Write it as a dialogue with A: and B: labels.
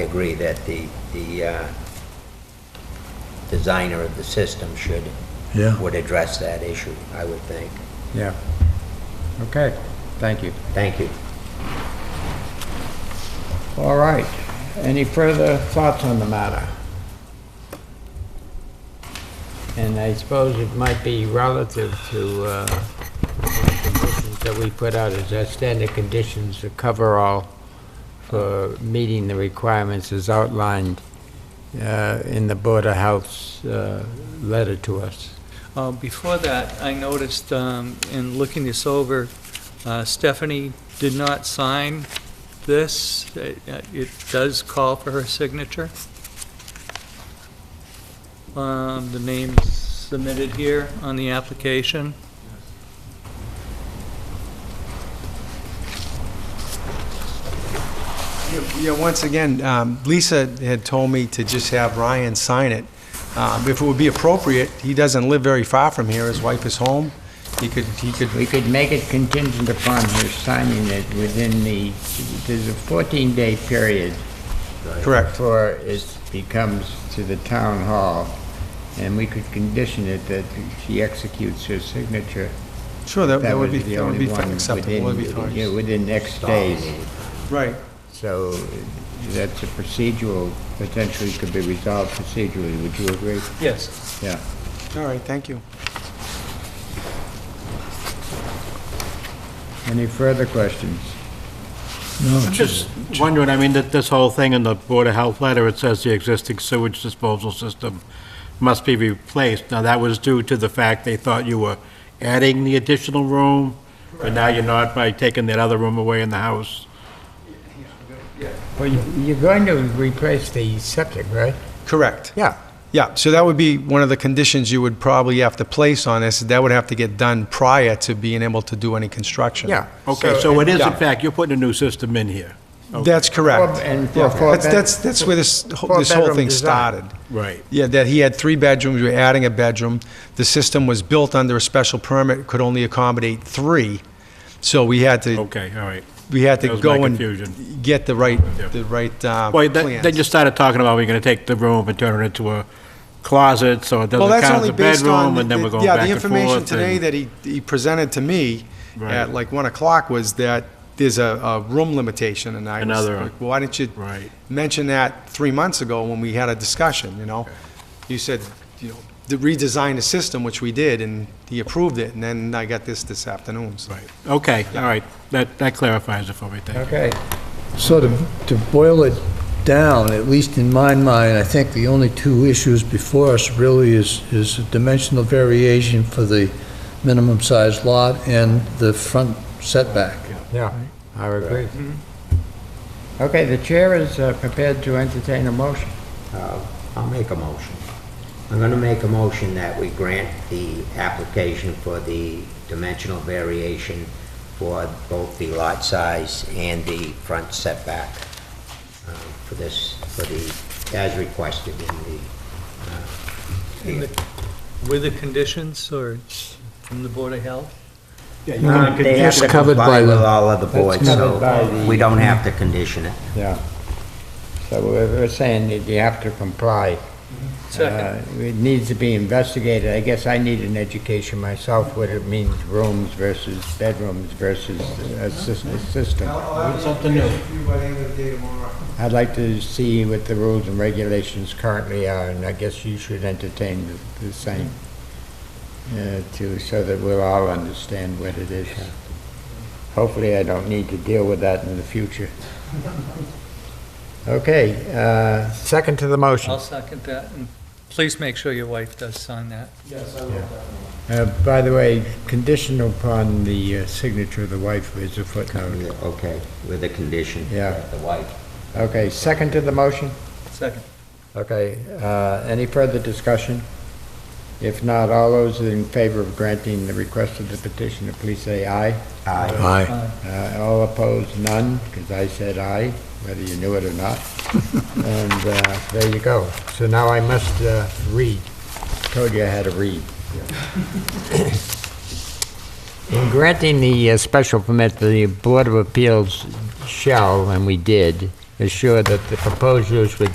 A: I agree that the, the uh, designer of the system should,
B: Yeah.
A: would address that issue, I would think.
C: Yeah. Okay, thank you.
A: Thank you.
C: All right. Any further thoughts on the matter? And I suppose it might be relative to uh, the conditions that we put out as our standard conditions to cover all for meeting the requirements as outlined uh, in the Board of Health's uh, letter to us.
D: Uh, Before that, I noticed um, in looking this over, uh, Stephanie did not sign this. It it does call for her signature. Um, The name submitted here on the application.
E: Yeah, once again, um, Lisa had told me to just have Ryan sign it. Um, If it would be appropriate, he doesn't live very far from here, his wife is home, he could, he could,
C: We could make it contingent upon her signing it within the, there's a 14-day period.
E: correct.
C: Before it becomes to the town hall, and we could condition it that she executes her signature.
E: Sure, that that would be,
C: the
E: that would
C: only
E: be
C: one
E: fine, acceptable, that would be
C: within- yeah,
E: fine.
C: Within next days.
E: Right,
C: So that's a procedural, potentially could be resolved procedurally, would you agree?
D: Yes.
C: Yeah.
E: all right, thank you.
C: Any further questions?
F: I'm just wondering, I mean, that this whole thing in the Board of Health letter, it says the existing sewage disposal system must be replaced. Now, that was due to the fact they thought you were adding the additional room, but now you're not by taking that other room away in the house.
C: Well, you- you're going to replace the septic, right?
E: Correct.
C: Yeah.
E: Yeah, so that would be one of the conditions you would probably have to place on this, that would have to get done prior to being able to do any construction.
C: Yeah.
F: Okay, so it is in
E: Yeah.
F: fact, you're putting a new system in here.
E: That's correct.
C: Four- and
E: Yeah,
C: four- four
E: That's,
C: bed-
E: that's, that's where this,
C: four
E: this whole
C: bedroom
E: thing
C: design.
E: started.
F: Right.
E: Yeah, that he had three bedrooms, we were adding a bedroom. The system was built under a special permit, could only accommodate three. So we had to,
F: Okay, all right.
E: we had
F: Oh, That
E: to
F: was my
E: go
F: confusion.
E: and get the right,
F: Yeah.
E: the right uh,
F: Well, that- then you
E: plans.
F: started talking about we're gonna take the room and turn it into a closet, so it
E: Well,
F: doesn't
E: that's
F: count as
E: only
F: a
E: based on,
F: bedroom, and then we're
E: the-
F: going
E: yeah,
F: back
E: the
F: and forth.
E: information today
F: and-
E: that he, he presented to me
F: Right.
E: at like 1 o'clock was that there's a, a room limitation, and I was
F: Another-
E: like, why didn't you
F: Right.
E: mention that three months ago when we had a discussion, you know? You said, you know, to redesign the system, which we did, and he approved it, and then I got this this afternoon, so.
F: Right, okay, all right, that, that clarifies it for me, thank you.
C: Okay.
B: So to, to boil it down, at least in my mind, I think the only two issues before us really is, is dimensional variation for the minimum size lot and the front setback.
C: Yeah, I agree. Okay, the chair is uh, prepared to entertain a motion.
A: Uh, I'll make a motion. I'm going to make a motion that we grant the application for the dimensional variation for both the lot size and the front setback uh, for this, for the, as requested in the, uh,
D: In the- With the conditions or from the Board of Health?
B: Um,
A: They have
B: That's
A: to
B: covered by
A: comply with
B: the-
A: all of the boards,
C: covered
A: so
C: by the- Mm.
A: we don't have to condition it.
C: Yeah. So we're we're saying that you have to comply.
D: Second.
C: Uh, It needs to be investigated. I guess I need an education myself, what it means rooms versus bedrooms versus a sys- a system.
F: something new.
C: I'd like to see what the rules and regulations currently are, and I guess you should entertain the- the same, uh, to, so that we'll all understand what it is. Hopefully, I don't need to deal with that in the future. Okay, uh, second to the motion.
D: I'll second that, and please make sure your wife does sign that.
C: Uh, By the way, conditional upon the uh, signature of the wife is a footnote.
A: Okay, with the condition.
C: Yeah.
A: that The wife.
C: Okay, second to the motion?
D: Second.
C: Okay, uh, any further discussion? If not, all those in favor of granting the request of the petitioner, please say aye.
A: Aye.
B: Aye.
C: Uh, All opposed, none, because I said aye, whether you knew it or not. And uh, there you go. So now I must uh, read. Told you I had to read. In granting the uh, special permit, the Board of Appeals shall, and we did, assured that the proposed use would